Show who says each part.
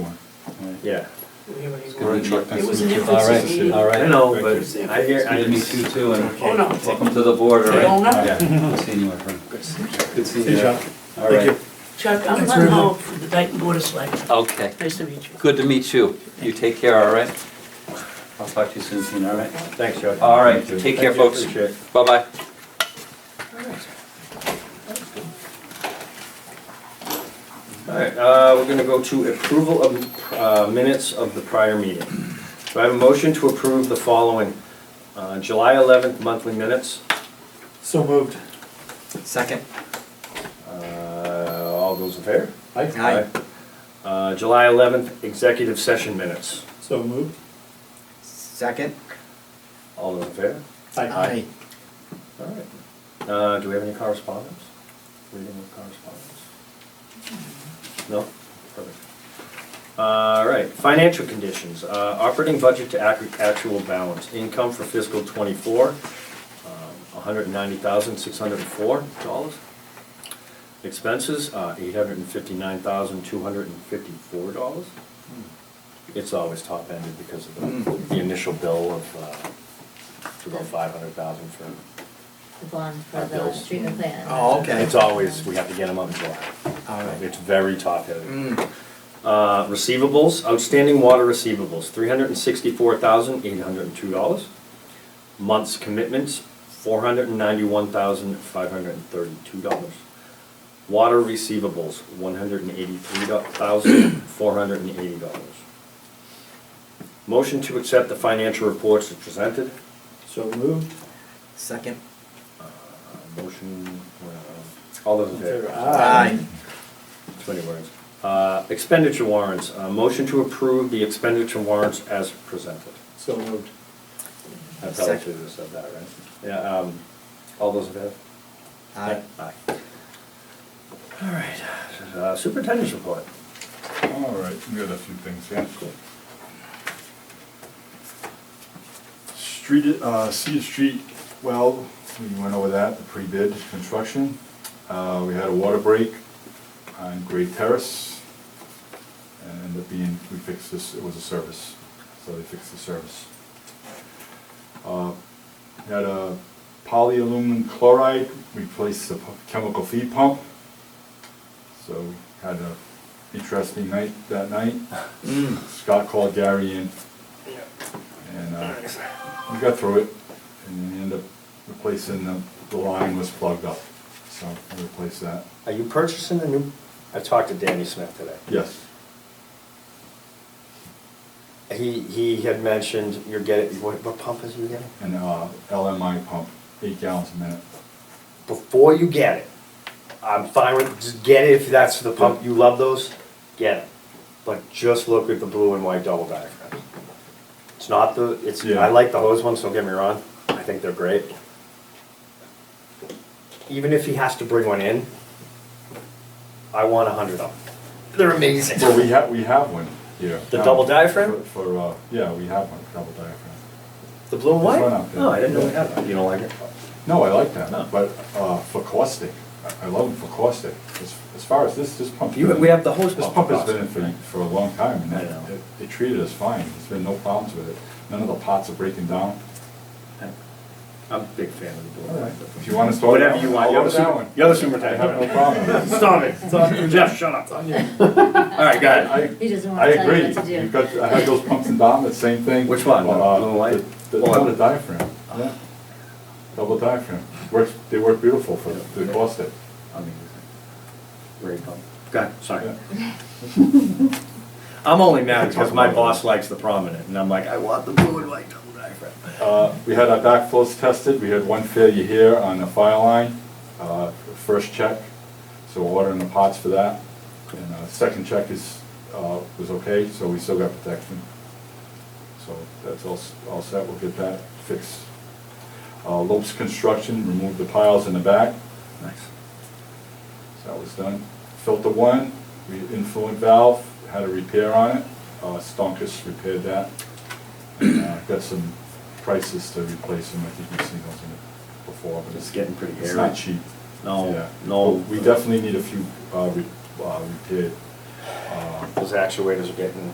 Speaker 1: Yeah,
Speaker 2: We haven't even-
Speaker 3: We're in short
Speaker 2: It was
Speaker 3: pencil.
Speaker 2: an
Speaker 4: All
Speaker 2: infancy
Speaker 4: right,
Speaker 2: meeting.
Speaker 4: all
Speaker 1: I
Speaker 4: right.
Speaker 1: know,
Speaker 3: Thank
Speaker 1: but
Speaker 2: you.
Speaker 1: I hear, I
Speaker 3: Good to meet you too, and
Speaker 2: Oh, no.
Speaker 3: welcome to the board, all
Speaker 2: They
Speaker 3: right?
Speaker 2: don't know.
Speaker 3: Good seeing you, my friend. Good seeing you.
Speaker 1: Hey, Chuck.
Speaker 3: All right.
Speaker 2: Chuck, I'm Glenn Hall from the Dayton Board of Selectmen.
Speaker 3: Okay,
Speaker 2: Nice to meet you.
Speaker 3: good to meet you. You take care, all right? I'll talk to you soon, Tina, all right?
Speaker 1: thanks, Chuck.
Speaker 3: All right,
Speaker 1: Thank you.
Speaker 3: take care,
Speaker 1: Thank you,
Speaker 3: folks.
Speaker 1: appreciate it.
Speaker 3: Bye-bye.
Speaker 1: All right, uh, we're gonna go to approval of uh, minutes of the prior meeting. Do I have a motion to approve the following? Uh, July 11th monthly minutes.
Speaker 5: So moved.
Speaker 4: Second.
Speaker 1: Uh, All those in favor?
Speaker 4: Aye.
Speaker 1: Uh, July 11th executive session minutes.
Speaker 5: So moved.
Speaker 4: Second.
Speaker 1: All those in favor?
Speaker 4: Aye.
Speaker 1: All right. Uh, Do we have any correspondence? Reading of correspondence? No? Perfect. All right, financial conditions, uh, operating budget to ac- actual balance, income for fiscal um, '24, $190,604. Expenses, uh, $859,254. It's always top-ended because of the- the initial bill of uh, it's about 500,000 for
Speaker 6: the bond for
Speaker 1: Our
Speaker 6: the
Speaker 1: bills.
Speaker 6: treatment plant.
Speaker 4: Oh, okay.
Speaker 1: It's always, we have to get them on July.
Speaker 4: All right.
Speaker 1: It's very top heavy.
Speaker 4: Mm.
Speaker 1: Uh, receivables, outstanding water receivables, three hundred and sixty-four thousand, eight hundred and two dollars. Months commitments, four hundred and ninety-one thousand, five hundred and thirty-two dollars. Water receivables, one hundred and eighty-three thousand, four hundred and eighty dollars. Motion to accept the financial reports as presented.
Speaker 5: So moved.
Speaker 4: Second.
Speaker 1: Uh, Motion, uh, all those in favor?
Speaker 4: Ah.
Speaker 1: Too many words. Uh, Expenditure warrants, Uh, motion to approve the expenditure warrants as presented.
Speaker 5: So moved.
Speaker 1: I probably should have said that, right? Yeah, um, all those in favor?
Speaker 4: Aye.
Speaker 1: Aye. All right, uh, superintendent's report.
Speaker 7: All right, we got a few things here. Street, uh, Cedar Street, well, we went over that, the pre-bid construction. Uh, we had a water break on Great Terrace. And ended up being, we fixed this, it was a service, so they fixed the service. Uh, Had a polyaluminum chloride, replaced the pu- chemical feed pump. So had a interesting night that night. Scott called Gary in and uh, we got through it and we ended up replacing the, the line was plugged up. So we replaced that.
Speaker 1: Are you purchasing a new, I talked to Danny Smith today.
Speaker 7: Yes,
Speaker 1: He, he had mentioned you're getting, what, what pump is you getting?
Speaker 7: an uh, LMI pump, eight gallons a minute.
Speaker 1: Before you get it, I'm fine with, just get it if that's the pump, you love those, get it. But just look at the blue and white double diaphragm. It's not the, it's, I
Speaker 7: Yeah.
Speaker 1: like the hose ones, don't get me wrong, I think they're great. Even if he has to bring one in, I want a hundred of them. They're amazing.
Speaker 7: Well, we have, we have one here.
Speaker 1: The
Speaker 7: now
Speaker 1: double diaphragm?
Speaker 7: for- For, uh, yeah, we have one, double diaphragm.
Speaker 1: The blue and
Speaker 7: There's
Speaker 1: white?
Speaker 7: one out there.
Speaker 1: No, I didn't know we had that. You don't like it?
Speaker 7: No, I like
Speaker 1: No.
Speaker 7: that, but uh, for caustic, I- I love them for caustic. As as far as this, this pump.
Speaker 1: You- we have the hose
Speaker 7: This
Speaker 1: pump
Speaker 7: pump
Speaker 1: for
Speaker 7: has been in
Speaker 1: caustic,
Speaker 7: for, for a long time, and
Speaker 1: I
Speaker 7: it-
Speaker 1: know.
Speaker 7: it- they treated us fine. There's been no problems with it. None of the pots are breaking down.
Speaker 1: I'm a big fan of the blue and
Speaker 7: If
Speaker 1: white.
Speaker 7: you want to start.
Speaker 1: Whatever you want. You're the super- you're the superintendent.
Speaker 7: I have no problem with it.
Speaker 1: Stop it, stop, Jeff, shut up. All right, go ahead.
Speaker 7: I-
Speaker 6: He doesn't
Speaker 7: I
Speaker 6: wanna tell
Speaker 7: agree.
Speaker 6: you what to
Speaker 7: You've
Speaker 6: do.
Speaker 7: got, I had those pumps in Dartmouth, the same thing.
Speaker 1: Which one? The Oh,
Speaker 7: Uh,
Speaker 1: blue and white?
Speaker 7: The, the-
Speaker 1: Well,
Speaker 7: no, the diaphragm,
Speaker 1: Ah.
Speaker 7: yeah. Double diaphragm. Works, they work beautiful for, the caustic.
Speaker 1: Great pump. Go ahead, sorry.
Speaker 7: Yeah.
Speaker 1: I'm only mad because my boss likes the prominent, and I'm like, I want the blue and white double diaphragm.
Speaker 7: Uh, We had our backflows tested, we had one failure here on the fire line, uh, first check, so we're ordering the pots for that. And uh, second check is, uh, was okay, so we still got protection. So that's all, s- all set, we'll get that fixed. Uh, Lopes Construction removed the piles in the back,
Speaker 1: Nice.
Speaker 7: so that was done. Filter one, we influent valve, had a repair on it, Uh, Stonkus repaired that. And uh, got some prices to replace them, I think you've seen those in it before, but
Speaker 1: It's
Speaker 7: it's.
Speaker 1: getting pretty
Speaker 7: It's
Speaker 1: hairy.
Speaker 7: not cheap.
Speaker 1: No,
Speaker 7: Yeah.
Speaker 1: no.
Speaker 7: But We definitely need a few uh, re- uh, repaired. uh,
Speaker 1: Those actuators are getting